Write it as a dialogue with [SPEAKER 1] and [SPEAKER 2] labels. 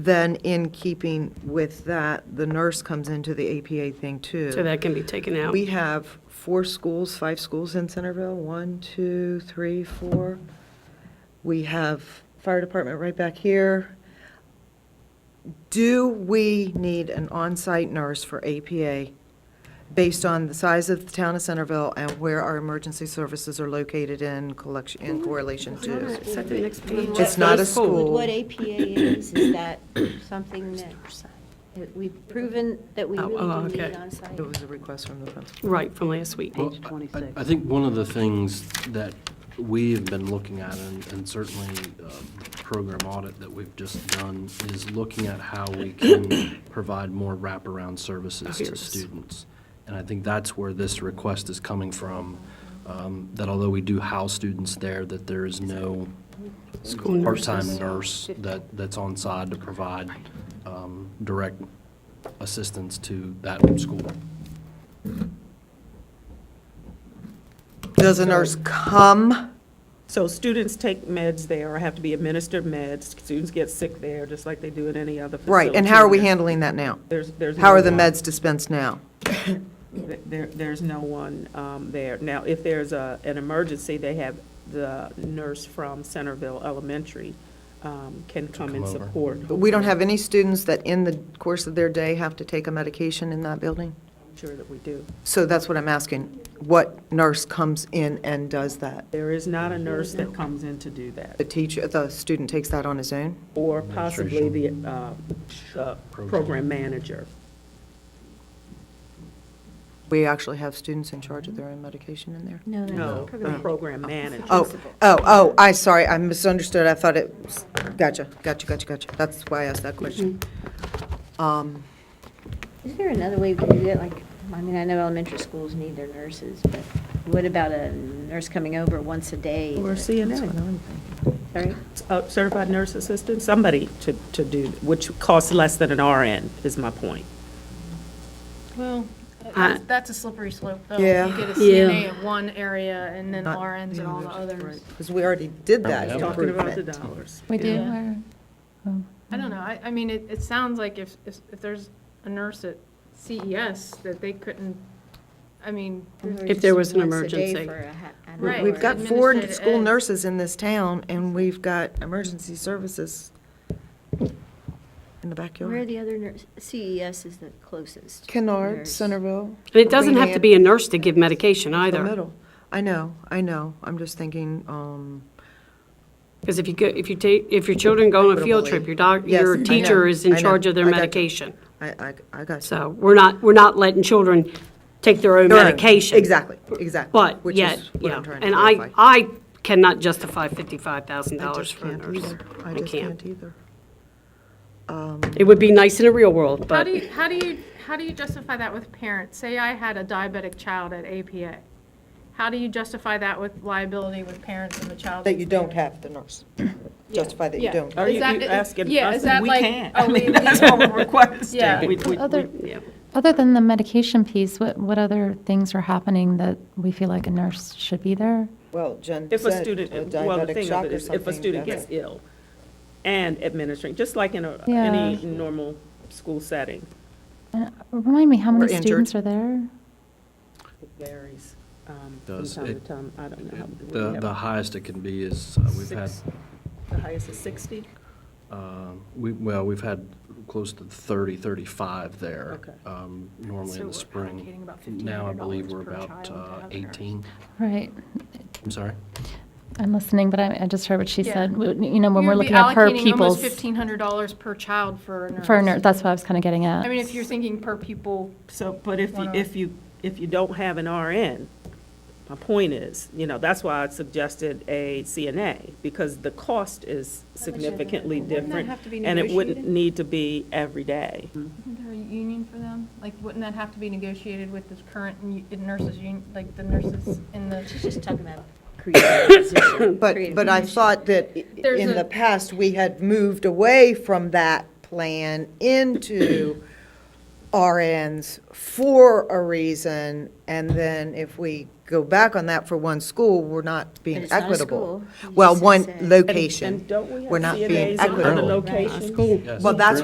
[SPEAKER 1] Then in keeping with that, the nurse comes into the APA thing too.
[SPEAKER 2] So that can be taken out.
[SPEAKER 1] We have four schools, five schools in Centerville, one, two, three, four. We have fire department right back here. Do we need an on-site nurse for APA based on the size of the town of Centerville and where our emergency services are located in collection, in correlation
[SPEAKER 2] All Mm-hmm. right,
[SPEAKER 1] to?
[SPEAKER 2] Is that the next page?
[SPEAKER 1] It's not a school.
[SPEAKER 3] What APA is, is that something that that we've proven that we
[SPEAKER 2] Oh,
[SPEAKER 3] really
[SPEAKER 2] oh,
[SPEAKER 3] do
[SPEAKER 2] okay.
[SPEAKER 3] need on site?
[SPEAKER 1] It was a request from the principal.
[SPEAKER 2] Right, from last week.
[SPEAKER 4] Well, I- I think one of the things that we've been looking at, and and certainly uh, the program audit that we've just done, is looking at how we can provide more wraparound services
[SPEAKER 2] Here it
[SPEAKER 4] to
[SPEAKER 2] is.
[SPEAKER 4] students. And I think that's where this request is coming from, um, that although we do house students there, that there is no
[SPEAKER 2] School
[SPEAKER 4] part-time
[SPEAKER 2] nurses.
[SPEAKER 4] nurse that, that's on side to provide um, direct assistance to that school.
[SPEAKER 1] Does a nurse come?
[SPEAKER 5] So students take meds there, or have to be administered meds, students get sick there, just like they do in any other facility.
[SPEAKER 1] Right, and how are we handling that now?
[SPEAKER 5] There's, there's.
[SPEAKER 1] How
[SPEAKER 5] no
[SPEAKER 1] are the
[SPEAKER 5] one-
[SPEAKER 1] meds dispensed now?
[SPEAKER 5] There, there's no one um, there. Now, if there's a, an emergency, they have the nurse from Centerville Elementary um, can come
[SPEAKER 4] come
[SPEAKER 5] and
[SPEAKER 4] over.
[SPEAKER 5] support.
[SPEAKER 1] We don't have any students that in the course of their day have to take a medication in that building?
[SPEAKER 5] I'm Sure that we do.
[SPEAKER 1] So that's what I'm asking. What nurse comes in and does that?
[SPEAKER 5] There is not a nurse that comes in to do that,
[SPEAKER 1] The teacher, the student takes that on his own?
[SPEAKER 5] or possibly the uh, uh, program manager.
[SPEAKER 1] We actually have students in charge of their own medication in there?
[SPEAKER 3] No,
[SPEAKER 5] No, the program manager.
[SPEAKER 1] Oh, oh, oh, I, sorry, I misunderstood. I thought it, was- gotcha, gotcha, gotcha, gotcha. That's why I asked that question.
[SPEAKER 6] Mm-hmm.
[SPEAKER 1] Um,
[SPEAKER 3] Is there another way we could do that? Like, I mean, I know elementary schools need their nurses, but what about a nurse coming over once a day?
[SPEAKER 5] Or CNA.
[SPEAKER 3] Sorry?
[SPEAKER 5] a certified nurse assistant, somebody to, to do, which costs less than an RN, is my point.
[SPEAKER 6] Well,
[SPEAKER 2] I-
[SPEAKER 6] that's that's a slippery slope, though.
[SPEAKER 1] Yeah.
[SPEAKER 6] You get a
[SPEAKER 2] Yeah.
[SPEAKER 6] CNA in one area and then
[SPEAKER 1] Not
[SPEAKER 6] RNs in all the others.
[SPEAKER 1] Because we already did that
[SPEAKER 4] Yeah.
[SPEAKER 5] Talking about the
[SPEAKER 1] improvement.
[SPEAKER 5] dollars.
[SPEAKER 7] We do,
[SPEAKER 6] Yeah.
[SPEAKER 7] or-
[SPEAKER 6] I don't know, I, I mean, it, it sounds like if, if if there's a nurse at CES that they couldn't, I mean, there's-
[SPEAKER 2] If there was an
[SPEAKER 3] Once a day
[SPEAKER 2] emergency.
[SPEAKER 3] for a ha- an
[SPEAKER 6] Right.
[SPEAKER 1] We've
[SPEAKER 3] hour.
[SPEAKER 1] got four
[SPEAKER 6] Administrative
[SPEAKER 1] school
[SPEAKER 6] ed.
[SPEAKER 1] nurses in this town, and we've got emergency services in the backyard.
[SPEAKER 3] Where are the other nurse, CES is the closest.
[SPEAKER 1] Kennard,
[SPEAKER 3] nurse.
[SPEAKER 1] Centerville.
[SPEAKER 2] And it doesn't have to be a nurse to give medication
[SPEAKER 1] The
[SPEAKER 2] either.
[SPEAKER 1] middle. I know, I know. I'm just thinking, um,
[SPEAKER 2] Because if you go, if you take, if your children go on a field trip, your doc,
[SPEAKER 1] Yes, I
[SPEAKER 2] your
[SPEAKER 1] know,
[SPEAKER 2] teacher is
[SPEAKER 1] I
[SPEAKER 2] in
[SPEAKER 1] know,
[SPEAKER 2] charge of their
[SPEAKER 1] I got you.
[SPEAKER 2] medication.
[SPEAKER 1] I, I, I got you.
[SPEAKER 2] So we're not, we're not letting children take their own
[SPEAKER 1] Their own.
[SPEAKER 2] medication.
[SPEAKER 1] Exactly, exactly.
[SPEAKER 2] But
[SPEAKER 1] Which
[SPEAKER 2] yet,
[SPEAKER 1] is what
[SPEAKER 2] yeah,
[SPEAKER 1] I'm trying to
[SPEAKER 2] and I,
[SPEAKER 1] clarify.
[SPEAKER 2] I cannot justify fifty-five thousand
[SPEAKER 1] I
[SPEAKER 2] dollars
[SPEAKER 1] just
[SPEAKER 2] for a
[SPEAKER 1] can't
[SPEAKER 2] nurse.
[SPEAKER 1] either. I just can't either.
[SPEAKER 2] It would be nice in a real world,
[SPEAKER 6] how
[SPEAKER 2] but
[SPEAKER 6] do you, how do you, how do you justify that with parents? Say I had a diabetic child at APA. How do you justify that with liability with parents of a child?
[SPEAKER 1] That you don't have the nurse. Justify that you
[SPEAKER 6] Yeah.
[SPEAKER 1] don't.
[SPEAKER 5] Are
[SPEAKER 6] Is
[SPEAKER 5] you
[SPEAKER 6] that-
[SPEAKER 5] you asking
[SPEAKER 6] yeah,
[SPEAKER 5] us,
[SPEAKER 6] is that
[SPEAKER 5] we
[SPEAKER 6] like-
[SPEAKER 5] can't.
[SPEAKER 6] oh,
[SPEAKER 5] I mean,
[SPEAKER 6] we-
[SPEAKER 5] that's what we're requesting.
[SPEAKER 6] Yeah.
[SPEAKER 5] We- we-
[SPEAKER 7] Other,
[SPEAKER 2] yeah.
[SPEAKER 7] other than the medication piece, what, what other things are happening that we feel like a nurse should be there?
[SPEAKER 1] Well, Jen
[SPEAKER 5] If a
[SPEAKER 1] said
[SPEAKER 5] student,
[SPEAKER 1] a
[SPEAKER 5] well, the
[SPEAKER 1] diabetic
[SPEAKER 5] thing
[SPEAKER 1] shock
[SPEAKER 5] of it
[SPEAKER 1] or
[SPEAKER 5] is, if a
[SPEAKER 1] something,
[SPEAKER 5] student
[SPEAKER 1] that's-
[SPEAKER 5] gets ill and administering, just like in a,
[SPEAKER 7] Yeah.
[SPEAKER 5] any normal school setting.
[SPEAKER 7] And Uh, Remind me, how
[SPEAKER 1] Or
[SPEAKER 7] many
[SPEAKER 1] injured.
[SPEAKER 7] students are there?
[SPEAKER 5] It varies um, from
[SPEAKER 4] Does
[SPEAKER 5] time to
[SPEAKER 4] it-
[SPEAKER 5] time, I don't know. how- we
[SPEAKER 4] The,
[SPEAKER 5] have
[SPEAKER 4] the highest it can be is, uh, we've had,
[SPEAKER 5] six- The highest is 60?
[SPEAKER 4] um, we, well, we've had close to 30, 35 there.
[SPEAKER 5] Okay.
[SPEAKER 4] um, Normally
[SPEAKER 6] So
[SPEAKER 4] in
[SPEAKER 6] we're
[SPEAKER 4] the spring.
[SPEAKER 6] allocating about
[SPEAKER 4] Now I believe
[SPEAKER 6] $1,500
[SPEAKER 4] we're
[SPEAKER 6] per child
[SPEAKER 4] about
[SPEAKER 6] to
[SPEAKER 4] uh,
[SPEAKER 6] have a nurse.
[SPEAKER 4] 18,
[SPEAKER 7] Right,
[SPEAKER 4] I'm sorry.
[SPEAKER 7] I'm listening, but I, I just heard what she
[SPEAKER 6] Yeah.
[SPEAKER 7] said, We- you know, when we're
[SPEAKER 6] You'd be
[SPEAKER 7] looking at per
[SPEAKER 6] allocating Almost
[SPEAKER 7] pupils.
[SPEAKER 6] fifteen hundred dollars per child for a nurse.
[SPEAKER 7] For a nurse, that's what I was kind of getting at.
[SPEAKER 6] I mean, if you're thinking per pupil,
[SPEAKER 5] So, but if, you
[SPEAKER 6] Wanna-
[SPEAKER 5] if you, if you don't have an RN, my point is, you know, that's why I suggested a CNA, because the cost is significantly different.
[SPEAKER 6] have to be
[SPEAKER 5] And it wouldn't
[SPEAKER 6] negotiated?
[SPEAKER 5] need to be every day.
[SPEAKER 6] Isn't there a union for them? Like, wouldn't that have to be negotiated with the current u- nurses union, like the nurses in the?
[SPEAKER 3] She's just talking about creating a position.
[SPEAKER 1] But,
[SPEAKER 3] creating
[SPEAKER 1] but
[SPEAKER 3] a
[SPEAKER 1] I
[SPEAKER 3] position.
[SPEAKER 1] thought that i-
[SPEAKER 6] There's
[SPEAKER 1] in
[SPEAKER 6] a-
[SPEAKER 1] the past, we had moved away from that plan into RNs for a reason, and then if we go back on that for one school, we're not being
[SPEAKER 3] it's not a
[SPEAKER 1] equitable.
[SPEAKER 3] school. You
[SPEAKER 1] Well,
[SPEAKER 3] just
[SPEAKER 1] one
[SPEAKER 3] said-
[SPEAKER 1] location.
[SPEAKER 5] And don't we have
[SPEAKER 1] We're not being
[SPEAKER 5] CNAs in other
[SPEAKER 1] equitable.
[SPEAKER 5] locations?
[SPEAKER 4] Yes,
[SPEAKER 1] Oh. Well, that's